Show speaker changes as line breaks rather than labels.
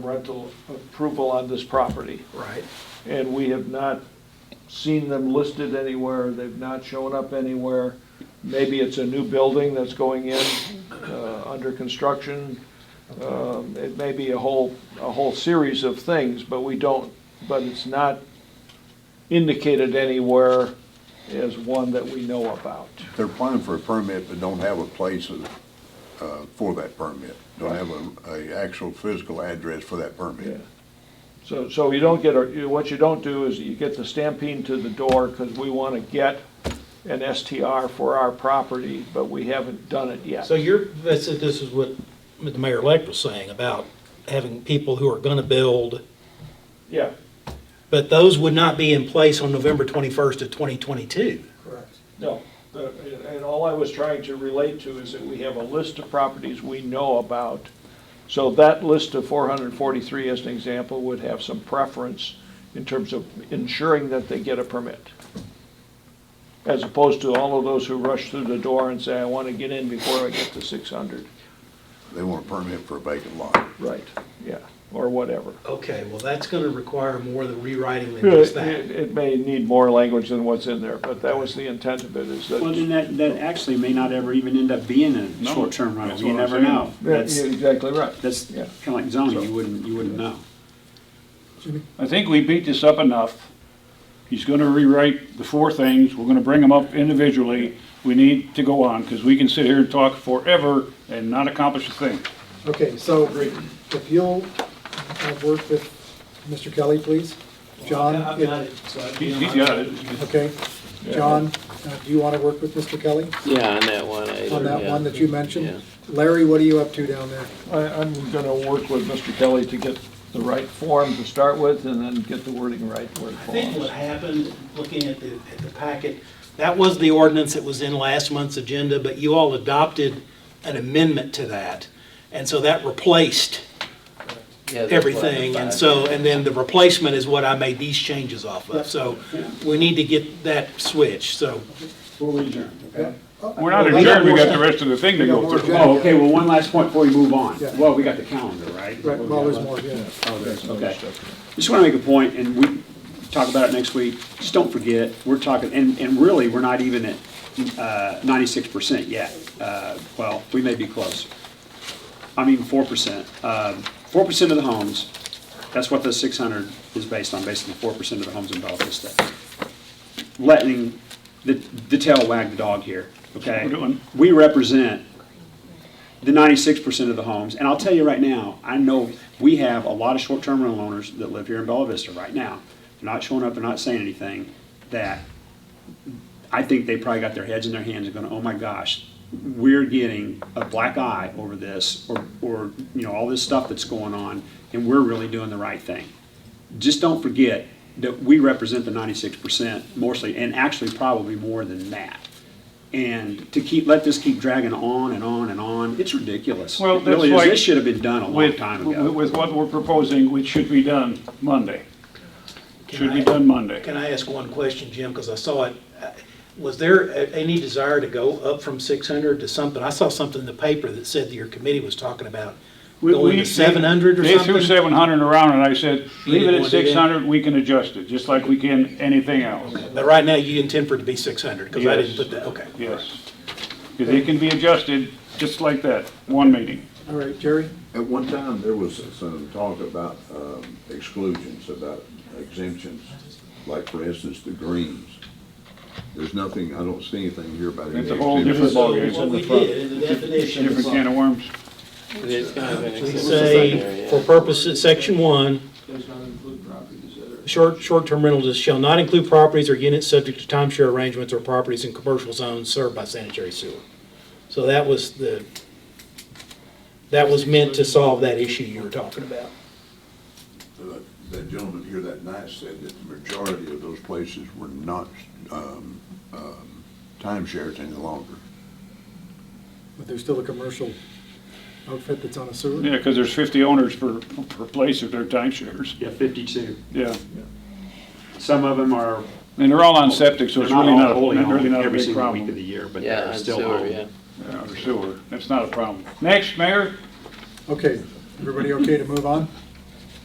rental approval on this property.
Right.
And we have not seen them listed anywhere, they've not shown up anywhere. Maybe it's a new building that's going in, uh, under construction. Um, It may be a whole, a whole series of things, but we don't, but it's not indicated anywhere as one that we know about.
They're applying for a permit, but don't have a place uh, for that permit. Don't have a, a actual physical address for that
Yeah.
permit.
So, so you don't get, a- you- what you don't do is you get the stampede to the door, because we want to get an STR for our property, but we haven't done it yet.
So you're, that's, this is what the mayor-elect was saying about having people who are gonna build,
Yeah,
but those would not be in place on November twenty-first of twenty twenty-two.
correct. No, the- and all I was trying to relate to is that we have a list of properties we know about. So that list of 443, as an example, would have some preference in terms of ensuring that they get a permit. As opposed to all of those who rush through the door and say, I want to get in before I get to 600.
They want a permit for a vacant lot.
Right, yeah, or whatever.
Okay, well, that's gonna require more of the rewriting than just
It
that.
it may need more language than what's in there, but that was the intent of it, is that.
Well, then that, that actually may not ever even end up being a
No,
short-term rental,
that's
you
what I'm
never
saying.
know.
Yeah,
That's,
you're exactly right.
that's
Yeah.
kinda like zoning, you wouldn't, you wouldn't know.
I think we beat this up enough. He's gonna rewrite the four things, we're gonna bring them up individually. We need to go on, because we can sit here and talk forever and not accomplish a thing.
Okay, so if you'll uh, work with Mr. Kelly, please. John?
I've got it, so I'd be
He's
on
he's
my-
got it.
Okay. John, uh, do you want to work with Mr. Kelly
Yeah, on that one. I-
on that
yeah.
one that you mentioned?
Yeah.
Larry, what are you up to down there?
I, I'm gonna work with Mr. Kelly to get the right form to start with, and then get the wording right where it
I think what
belongs.
happened, looking at the, at the packet, that was the ordinance that was in last month's agenda, but you all adopted an amendment to that. And so that replaced
Yeah, that's what I
everything, and
thought.
so, and then the replacement is what I made these changes off of, so we need to get that switched, so.
We'll adjourn, okay?
We're not adjourned, we got the rest of the thing to go
We're
through.
adjourned.
Oh, okay, well, one last point before we move on.
Yeah.
Well, we got the calendar, right?
Right, well, there's more, yeah.
Oh, there's, okay. Just want to make a point, and we talk about it next week, just don't forget, we're talking, and, and really, we're not even at uh, ninety-six percent yet. Uh, Well, we may be close. I mean, four percent. uh, Four percent of the homes, that's what the six hundred is based on, basically four percent of the homes in Bella Vista. Letting the, the tail wag the dog here, okay?
We're doing.
We represent the ninety-six percent of the homes, and I'll tell you right now, I know we have a lot of short-term rental owners that live here in Bella Vista right now. They're not showing up, they're not saying anything, that I think they probably got their heads in their hands and going, oh my gosh, we're getting a black eye over this, or, or, you know, all this stuff that's going on, and we're really doing the right thing. Just don't forget that we represent the ninety-six percent mostly, and actually probably more than that. And to keep, let this keep dragging on and on and on, it's ridiculous.
Well,
It really
that's
is.
like
This should have been done a long
With,
time ago.
with what we're proposing, which should be done Monday. Should be done Monday.
Can I ask one question, Jim, because I saw it, uh, was there a- any desire to go up from six hundred to something? I saw something in the paper that said that your committee was talking about
We-
going
we-
to seven hundred or
They threw
something?
seven hundred around, and I said,
You
leave it
didn't want to
at
do that?
six hundred, we can adjust it, just like we can anything else.
But right now, you intend for it to be six hundred, because I didn't
Yes.
put that, okay.
Yes. Because it can be adjusted just like that, one meeting.
All right, Jerry?
At one time, there was some talk about um, exclusions, about exemptions, like for instance, the greens. There's nothing, I don't see anything here about any.
It's a whole
exemptions.
different ballgame.
What we did in the definition.
Different can of worms.
It's kind of an
We
exception there,
say,
yeah.
for purposes, section one,
Does not include properties that are.
short, short-term rentals shall not include properties or units subject to timeshare arrangements or properties in commercial zones served by sanitary sewer. So that was the, that was meant to solve that issue you were talking about.
That gentleman here that night said that the majority of those places were not um, um, timeshares any longer.
But there's still a commercial outfit that's on a sewer?
Yeah, because there's fifty owners per, per place of their timeshares.
Yeah, fifty-two.
Yeah.
Some of them are,
And they're all on septic, so
they're
it's
not
really
all
not,
wholly
really
owned
not a
every
big
single week of the
problem.
year, but
Yeah,
they're
on
still
sewer,
owned.
yeah.
Yeah, or sewer, that's not a problem. Next, Mayor,
Okay, everybody okay to move on?